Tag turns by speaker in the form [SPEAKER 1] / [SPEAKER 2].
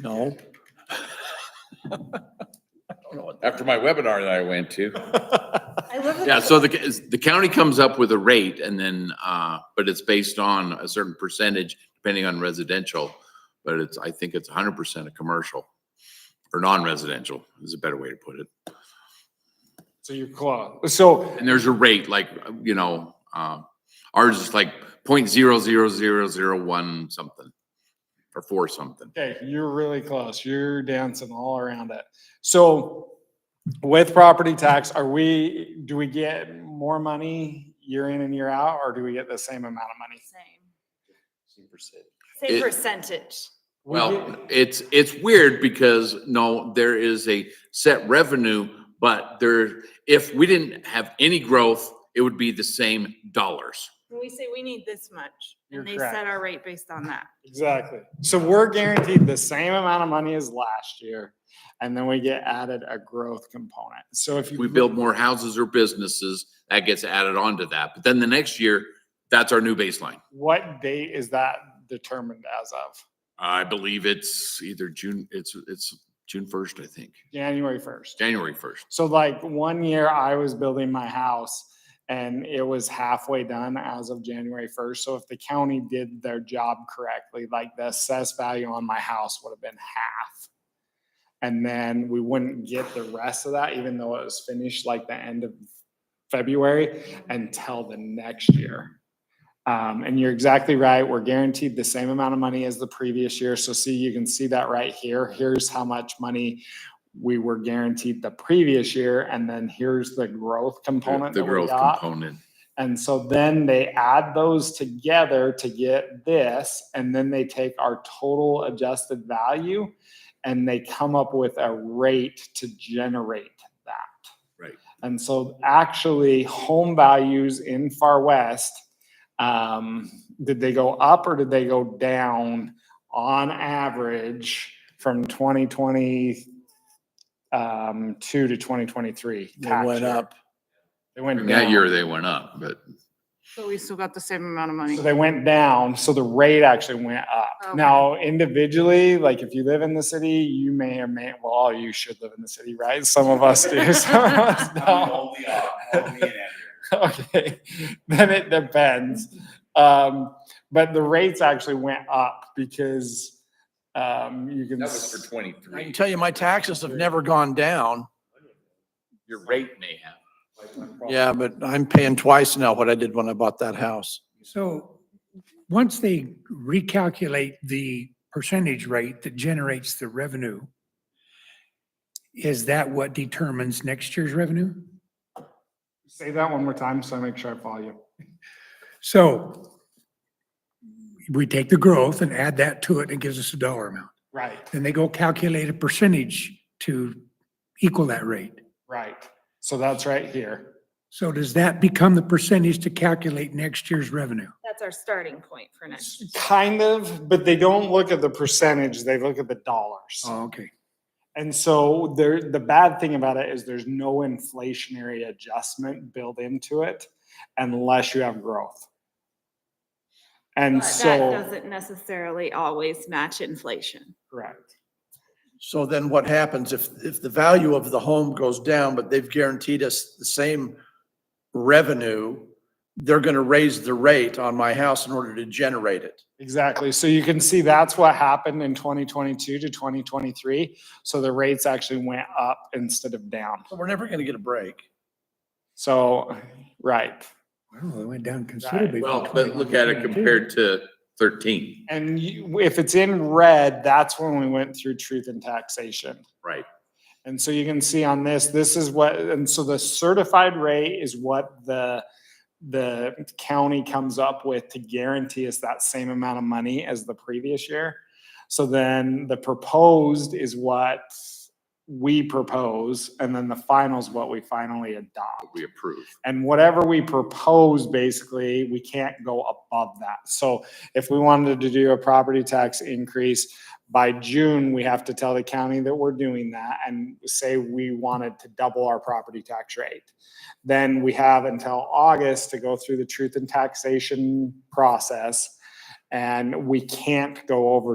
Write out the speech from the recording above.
[SPEAKER 1] No. I don't know what
[SPEAKER 2] After my webinar that I went to.
[SPEAKER 1] that-
[SPEAKER 3] I live with
[SPEAKER 2] Yeah,
[SPEAKER 3] the-
[SPEAKER 2] so the, the county comes up with a rate and then, uh, but it's based on a certain percentage depending on residential. But it's, I think it's hundred percent of commercial or non-residential is a better way to put it.
[SPEAKER 4] So you're close. So,
[SPEAKER 2] And there's a rate like, you know, um, ours is like point zero zero zero zero one something or four something.
[SPEAKER 4] okay, you're really close. You're dancing all around it. So with property tax, are we, do we get more money year in and year out, or do we get the same amount of money?
[SPEAKER 3] Same.
[SPEAKER 2] It-
[SPEAKER 3] Same percentage.
[SPEAKER 4] We
[SPEAKER 2] Well,
[SPEAKER 4] get-
[SPEAKER 2] it's, it's weird because no, there is a set revenue, but there, if we didn't have any growth, it would be the same dollars.
[SPEAKER 3] When we say we need this much,
[SPEAKER 4] You're
[SPEAKER 3] and they set
[SPEAKER 4] correct.
[SPEAKER 3] our rate based on that.
[SPEAKER 4] Exactly. So we're guaranteed the same amount of money as last year, and then we get added a growth component. So if you.
[SPEAKER 2] If we build more houses or businesses, that gets added on to that. But then the next year, that's our new baseline.
[SPEAKER 4] What date is that determined as of?
[SPEAKER 2] I believe it's either June, it's, it's June first, I think,
[SPEAKER 4] January first.
[SPEAKER 2] January first.
[SPEAKER 4] So like one year I was building my house and it was halfway done as of January first. So if the county did their job correctly, like the assessed value on my house would have been half. And then we wouldn't get the rest of that, even though it was finished like the end of February until the next year. Um, and you're exactly right. We're guaranteed the same amount of money as the previous year. So see, you can see that right here. Here's how much money we were guaranteed the previous year. And then here's the growth component
[SPEAKER 2] The
[SPEAKER 4] that we
[SPEAKER 2] growth
[SPEAKER 4] got.
[SPEAKER 2] component.
[SPEAKER 4] And so then they add those together to get this, and then they take our total adjusted value and they come up with a rate to generate that.
[SPEAKER 2] Right.
[SPEAKER 4] And so actually, home values in Far West, um, did they go up or did they go down on average from 2020 um, two to 2023?
[SPEAKER 1] They went up.
[SPEAKER 4] They went
[SPEAKER 2] That
[SPEAKER 4] down.
[SPEAKER 2] year they went up, but
[SPEAKER 3] So we still got the same amount of
[SPEAKER 4] So
[SPEAKER 3] money.
[SPEAKER 4] they went down, so the rate actually went up.
[SPEAKER 3] Okay.
[SPEAKER 4] Now, individually, like if you live in the city, you may or may, well, all you should live in the city, right? Some of us do, some of us don't. Okay, then it depends. Um, but the rates actually went up because, um, you can.
[SPEAKER 2] that was
[SPEAKER 4] s-
[SPEAKER 2] for
[SPEAKER 1] I can
[SPEAKER 2] twenty-three.
[SPEAKER 1] tell you, my taxes have never gone down.
[SPEAKER 2] Your rate may have.
[SPEAKER 1] Yeah, but I'm paying twice now what I did when I bought that house.
[SPEAKER 5] So once they recalculate the percentage rate that generates the revenue, is that what determines next year's revenue?
[SPEAKER 4] Say that one more time, so I make sure I follow you.
[SPEAKER 5] So we take the growth and add that to it and it gives us a dollar amount.
[SPEAKER 4] Right,
[SPEAKER 5] Then they go calculate a percentage to equal that rate.
[SPEAKER 4] right. So that's right here.
[SPEAKER 5] So does that become the percentage to calculate next year's revenue?
[SPEAKER 3] That's our starting point for next.
[SPEAKER 4] Kind of, but they don't look at the percentage, they look at the dollars.
[SPEAKER 5] Oh, okay.
[SPEAKER 4] And so there, the bad thing about it is there's no inflationary adjustment built into it unless you have growth. And
[SPEAKER 3] But that
[SPEAKER 4] so,
[SPEAKER 3] doesn't necessarily always match inflation.
[SPEAKER 4] correct.
[SPEAKER 1] So then what happens if, if the value of the home goes down, but they've guaranteed us the same revenue, they're going to raise the rate on my house in order to generate it.
[SPEAKER 4] Exactly. So you can see that's what happened in 2022 to 2023. So the rates actually went up instead of down.
[SPEAKER 1] So we're never going to get a break.
[SPEAKER 4] So, right.
[SPEAKER 5] Well, it went down considerably. from
[SPEAKER 2] Well, but look at it
[SPEAKER 5] 21 to 22.
[SPEAKER 2] compared to thirteen,
[SPEAKER 4] And you, if it's in red, that's when we went through truth and taxation.
[SPEAKER 2] right?
[SPEAKER 4] And so you can see on this, this is what, and so the certified rate is what the, the county comes up with to guarantee us that same amount of money as the previous year. So then the proposed is what we propose, and then the final is what we finally adopt.
[SPEAKER 2] We approve.
[SPEAKER 4] And whatever we propose, basically, we can't go above that. So if we wanted to do a property tax increase by June, we have to tell the county that we're doing that and say we wanted to double our property tax rate. Then we have until August to go through the truth and taxation process. And we can't go over